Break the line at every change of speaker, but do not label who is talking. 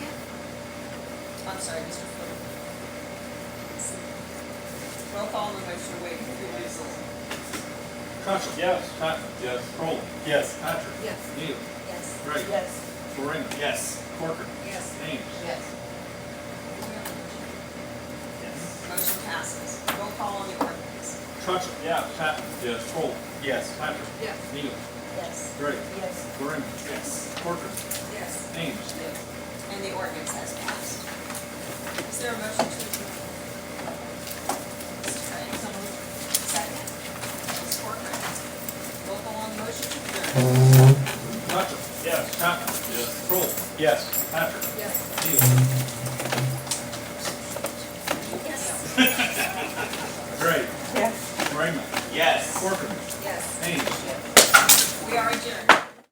I'm sorry, Mr. Foote. Roll call on the motion to waive reading.
Cochran.
Yes.
Patton.
Yes.
Crowell.
Yes.
Patrick.
Yes.
Neal.
Yes.
Gray.
Yes.
Florina.
Yes.
Corcoran.
Yes.
Ames.
Yes.
Yes.
Motion passes. Roll call on the ordinance.
Cochran.
Yes.
Patton.
Yes.
Crowell.
Yes.
Patrick.
Yes.
Neal.
Yes.
Gray.
Yes.
Florina.
Yes.
Corcoran.
Yes.
Ames.
And the ordinance has passed. Is there a motion to approve? Mr. Craig? Second. Ms. Corcoran. Roll call on the motion to adjourn.
Cochran.
Yes.
Patton.
Yes.
Crowell.
Yes.
Patrick.
Yes.
Neal.
Yes.
Gray.
Yes.
Florina.
Yes.
Corcoran.
Yes.
Ames.
We are adjourned.